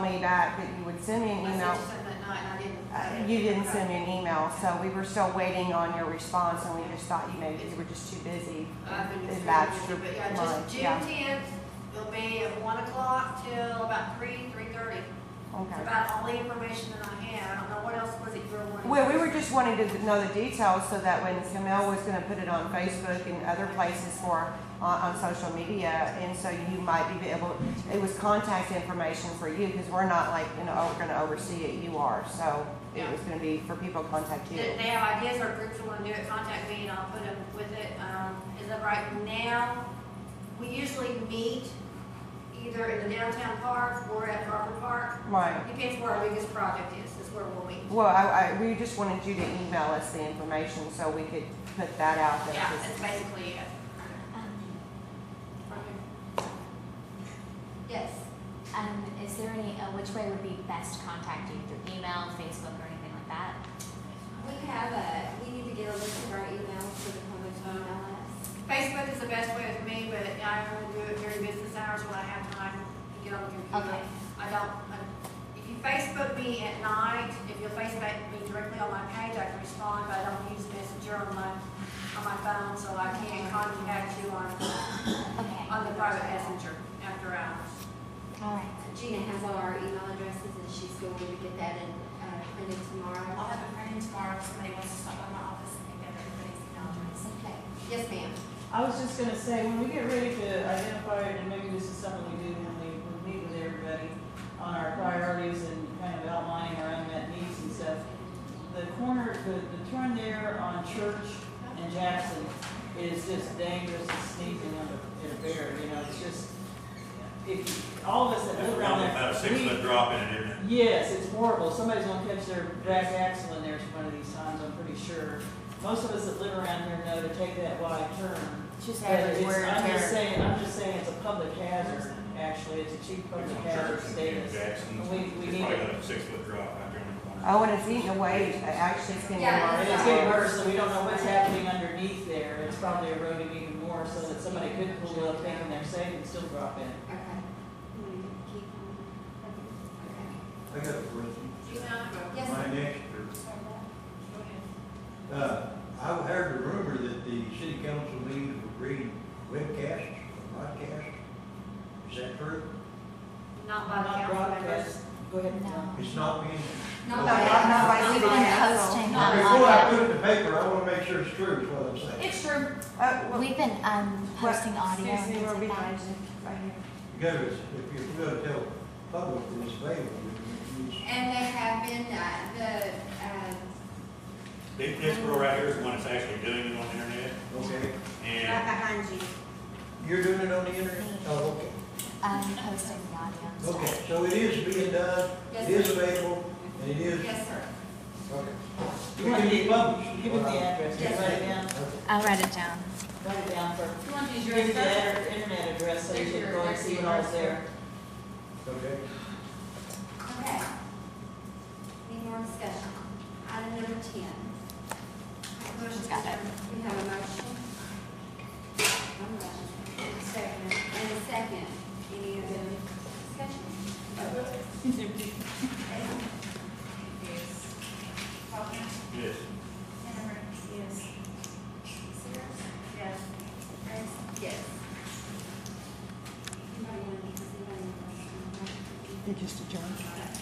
told me that, that you would send me an I email. sent you something that night and I didn't. Uh, You didn't send me an email, so we were still waiting on your response, and we just thought, you know, you were just too busy. I've been It's extremely bad busy, but yeah, lunch, just June yeah. tenth, it'll be at one o'clock till about three, three thirty. It's Okay. about all the information that I have. I don't know what else was it you were wanting. Well, we were just wanting to know the details so that when Camille was gonna put it on Facebook and other places for, on, on social media, and so you might be able, it was contact information for you, because we're not like, you know, oh, we're gonna oversee it, you are, so it Yeah. was gonna be for people to contact you. If they have ideas or groups that wanna do it, contact me and I'll put them with it. Um, as of right now, we usually meet either in the downtown park or at Harper Park. Right. Depends where our biggest project is, is where we'll meet. Well, I, I, we just wanted you to email us the information so we could put that out there. Yeah, 'cause- that's basically it. Um, Yes. Um, is there any, uh, which way would be best to contact you, through email, Facebook, or anything like that? We have a, we need to get a list of our emails for the public to email us. Facebook is the best way with me, but I only do it during business hours when I have time to get on the computer. Okay. I don't, I- if you Facebook me at night, if you Facebook me directly on my page, I can respond, but I don't use Messenger on my, on my phone, so I can't contact you on, Okay, on the private messenger after hours. all right. Gina has all our email addresses and she's going to get that and, uh, printed I'll tomorrow. have it printed tomorrow if somebody wants to stop by my office and pick up everybody's email address. Okay, yes, ma'am. I was just gonna say, when we get ready to identify, and maybe this is something we do when we, we meet with everybody on our priorities and kind of outlining our unmet needs and stuff, the corner, the, the turn there on Church and Jackson is just dangerous and sneaking on a, in a bear, you know, it's just, if, all of us that That's live around around there. about a we- six foot drop in it, isn't it? Yes, it's horrible. Somebody's gonna catch their back axle in there one of these times, I'm pretty sure. Most of us that live around here know to take that wide turn. Just But it's- I'm just saying, I'm just saying it's a public hazard, actually. It's a chief It's public on hazard Church and Jim status. Jackson. We, we It's need probably it. got a six foot drop out there in the corner. Oh, and it's eating away, actually, it's getting Yeah, And worse. it's getting worse, so we don't know what's happening underneath there. It's probably eroding even more so that somebody could pull up, thinking they're safe and still drop in. Okay. You want to keep on? I got a question. You know, Okay. Yes, My ma'am. next, go ahead. uh, I heard the rumor that the city council meetings were being webcast, broadcast. Is that true? Not by the Not council members. broadcast. Go ahead. No. It's not being. Not by- not Uh, by- We've been posting Now, Before I on, put it in the paper, I wanna make sure it's true, is what I'm saying. It's true. Oh, well, we've been, um, posting audio and Excuse me, things we're like behind that. you, right here. Because if you're gonna tell public that it's available, you need And they have been, uh, the, uh, This, this girl right here is the one that's actually doing it on the internet, okay, and behind you. you're doing it on the internet? Oh, okay. Um, posting the audio and Okay, stuff. so it is being done, Yes, it is sir. available, and it is, yes, sir. okay. You want to It give can be give it the address. Yes, Write it down. Okay. I'll write it down. Write it down for You want to use Give me the internet address so you can go and see what all's there. Okay. Okay. Any more discussion? Item number ten. Motion Got it. We have a motion. One motion. And a Second. And a second. Any other discussion? Yes. Faulkner? yes, Hannah Yes. Sears? Yes. Grace? Yes. Anybody want to, anybody want to? They just adjourned. Okay.